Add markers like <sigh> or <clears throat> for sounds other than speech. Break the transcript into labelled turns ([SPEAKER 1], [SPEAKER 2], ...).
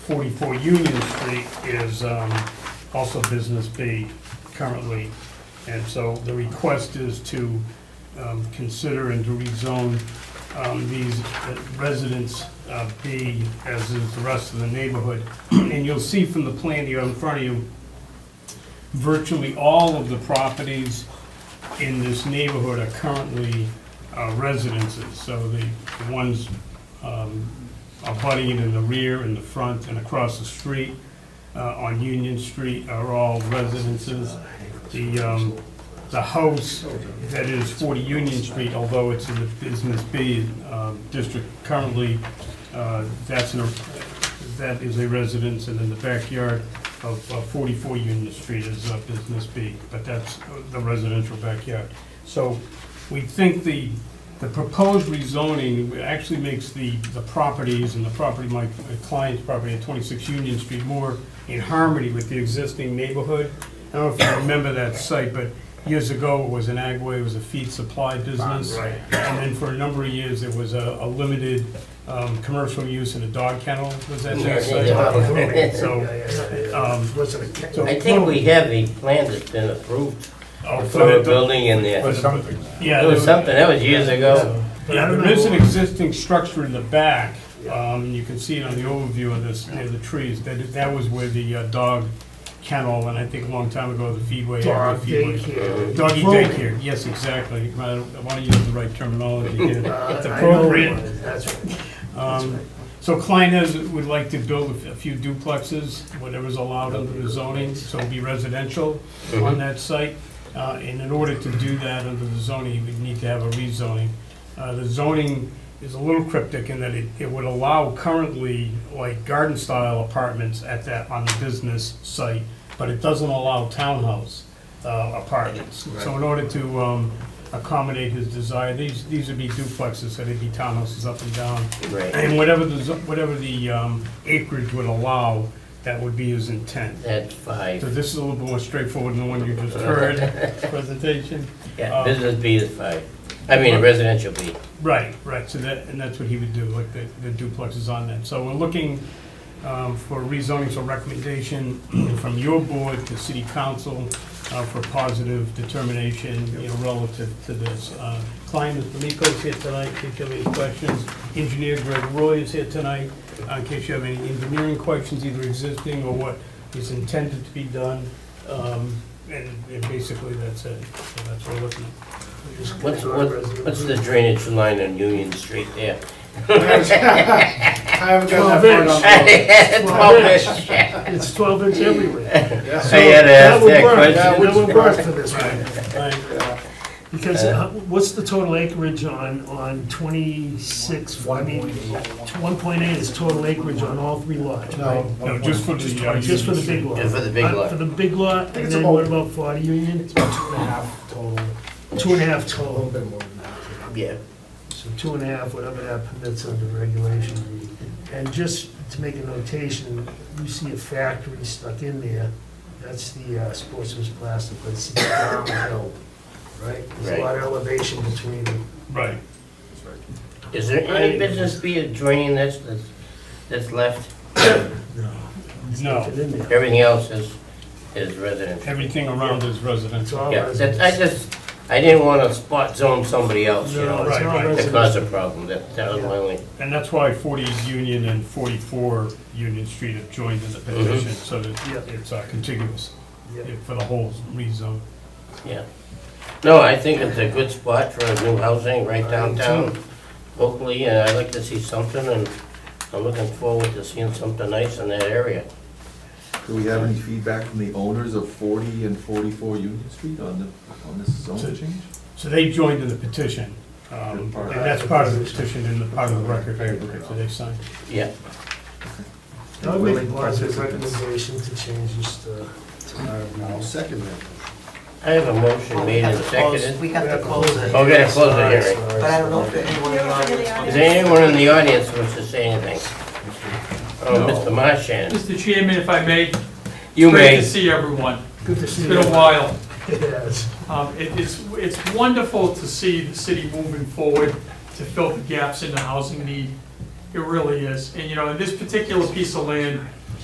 [SPEAKER 1] 44 Union Street is um, also Business B currently. And so the request is to um, consider and to rezone um, these residents uh, B, as is the rest of the neighborhood. And you'll see from the plan here in front of you, virtually all of the properties in this neighborhood are currently uh, residences. So the the ones um, abutting in the rear, in the front, and across the street uh, on Union Street are all residences. The, um, the house that is 40 Union Street, although it's in the Business B um, district currently, uh, that's an, that is a residence, and in the backyard of uh, 44 Union Street is uh, Business B, but that's the residential backyard. So we think the, the proposed rezoning actually makes the, the properties and the property, my client's property at 26 Union Street more in harmony with the existing neighborhood. I don't know if you remember that site, but years ago, it was an agway, it was a feed supply business.
[SPEAKER 2] Right.
[SPEAKER 1] And then for a number of years, it was a, a limited, um, commercial use in a dog kennel, was that that site? And <laughs> So, um, so-
[SPEAKER 2] I think we have a plan that's been approved
[SPEAKER 1] oh,
[SPEAKER 2] for
[SPEAKER 1] so
[SPEAKER 2] the
[SPEAKER 1] the-
[SPEAKER 2] building in there.
[SPEAKER 1] yeah.
[SPEAKER 2] It was
[SPEAKER 1] there-
[SPEAKER 2] something, that was years ago.
[SPEAKER 1] Yeah, there is an existing structure in the back, um, you can see it on the overview of this, near the trees, that, that was where the uh, dog kennel, and I think a long time ago, the feedway.
[SPEAKER 3] Dog
[SPEAKER 1] the feedway-
[SPEAKER 3] daycare.
[SPEAKER 1] Doggy
[SPEAKER 3] Program.
[SPEAKER 1] daycare, yes, exactly, I want to use the right terminology
[SPEAKER 3] <laughs>
[SPEAKER 1] here.
[SPEAKER 3] Uh,
[SPEAKER 1] It's
[SPEAKER 3] I know what it
[SPEAKER 1] appropriate.
[SPEAKER 3] is, That's right. That's
[SPEAKER 1] Um,
[SPEAKER 3] right.
[SPEAKER 1] So Klein has, would like to build a few duplexes, whatever's allowed under the zoning, so it'll be residential
[SPEAKER 3] Mm-hmm.
[SPEAKER 1] on that site. Uh, And in order to do that under the zoning, we need to have a rezoning. Uh, The zoning is a little cryptic in that it, it would allow currently like garden-style apartments at that, on the business site, but it doesn't allow townhouse uh, apartments. So in order to um, accommodate his desire, these, these would be duplexes, so they'd be townhouses up and down.
[SPEAKER 2] Right,
[SPEAKER 1] And whatever the, zo- whatever the um, acreage would allow, that would be his intent.
[SPEAKER 2] that's
[SPEAKER 1] So
[SPEAKER 2] five.
[SPEAKER 1] this is a little more straightforward than the one you just heard, presentation.
[SPEAKER 3] Oh.
[SPEAKER 2] Yeah, business B is five. I mean residential B.
[SPEAKER 1] Right, right, so that, and that's what he would do, like the the duplex is on that. So we're looking um, for rezoning, so recommendation <clears throat> from your board to city council uh, for positive determination, you know, relative to this. Uh, Klein D'Amico's here tonight, in case you have any questions. Engineer Greg Roy is here tonight, uh, in case you have any engineering questions, either existing or what is intended to be done. Um, And and basically, that's it, so that's what we're looking at.
[SPEAKER 2] What's, what- what's the drainage line on Union Street there? <laughs>
[SPEAKER 4] I haven't got that
[SPEAKER 2] Twelve inch.
[SPEAKER 3] It's twelve inch everywhere.
[SPEAKER 4] part
[SPEAKER 2] I had to ask that
[SPEAKER 3] That
[SPEAKER 2] question.
[SPEAKER 3] would work, that would work for this one.
[SPEAKER 1] Right.
[SPEAKER 3] Because uh, what's the total acreage on, on twenty-six, I mean, one point eight is total acreage on all three lots, right?
[SPEAKER 4] on.
[SPEAKER 1] No, just for the. uh,
[SPEAKER 3] Just for the big lot.
[SPEAKER 2] Yeah, for the big
[SPEAKER 3] Uh,
[SPEAKER 2] lot.
[SPEAKER 3] For the big lot, and
[SPEAKER 4] it's
[SPEAKER 3] then what
[SPEAKER 4] about-
[SPEAKER 3] about forty Union?
[SPEAKER 4] Two and a half total,
[SPEAKER 3] Two and a half
[SPEAKER 4] a little
[SPEAKER 3] total,
[SPEAKER 4] bit more than that.
[SPEAKER 2] Yeah,
[SPEAKER 3] so two and a half, whatever that permits under regulation. And just to make a notation, you see a factory stuck in there, that's the uh, Sportsman's Plastic, but it's downhill, right? There's a lot of elevation between them.
[SPEAKER 1] Right.
[SPEAKER 2] is there any business B a draining that's, that's- that's left?
[SPEAKER 1] No,
[SPEAKER 3] in there.
[SPEAKER 2] Everything else is, is residential.
[SPEAKER 1] everything around is
[SPEAKER 3] It's
[SPEAKER 1] residential.
[SPEAKER 3] all
[SPEAKER 2] Yeah, that's, I
[SPEAKER 3] residents.
[SPEAKER 2] just, I didn't want to spot zone somebody else, you
[SPEAKER 3] No,
[SPEAKER 2] know,
[SPEAKER 3] it's
[SPEAKER 1] Right,
[SPEAKER 3] all
[SPEAKER 1] right.
[SPEAKER 2] that
[SPEAKER 3] residents.
[SPEAKER 2] caused a problem, that, that was my only,
[SPEAKER 1] And that's why 40 Union and 44 Union Street have joined in the petition, so that
[SPEAKER 3] Yeah.
[SPEAKER 1] it's uh, contiguous
[SPEAKER 3] Yeah.
[SPEAKER 1] yeah, for the whole rezone.
[SPEAKER 2] yeah. No, I think it's a good spot for new housing right
[SPEAKER 3] I do
[SPEAKER 2] downtown locally, and I'd like to see something, and I'm looking forward to seeing something nice in that area.
[SPEAKER 5] Do we have any feedback from the owners of 40 and 44 Union Street on the, on this zone change?
[SPEAKER 1] So they joined in the petition, um, and that's part of the petition and the part of the record, so they signed.
[SPEAKER 2] Yeah,
[SPEAKER 3] I would make a
[SPEAKER 4] Willing
[SPEAKER 3] positive
[SPEAKER 4] participants.
[SPEAKER 3] recommendation to change just, uh,
[SPEAKER 4] I'll second that.
[SPEAKER 2] I have a motion
[SPEAKER 6] We
[SPEAKER 2] made
[SPEAKER 6] have
[SPEAKER 2] and
[SPEAKER 6] to close,
[SPEAKER 2] seconded.
[SPEAKER 6] we have to close it.
[SPEAKER 2] Oh, we gotta close the hearing.
[SPEAKER 6] But I don't know if anyone in the audience.
[SPEAKER 2] Is there anyone in the audience who wants to say anything? Oh, Mr. Marshan,
[SPEAKER 7] Mr. Chairman, if I may.
[SPEAKER 2] you
[SPEAKER 7] Great to
[SPEAKER 2] may,
[SPEAKER 7] see everyone.
[SPEAKER 3] Good to see
[SPEAKER 7] It's
[SPEAKER 3] you.
[SPEAKER 7] been a while.
[SPEAKER 3] Yes.
[SPEAKER 7] Um, it- It's it's wonderful to see the city moving forward to fill the gaps in the housing need. It really is. And, you know, in this particular piece of land,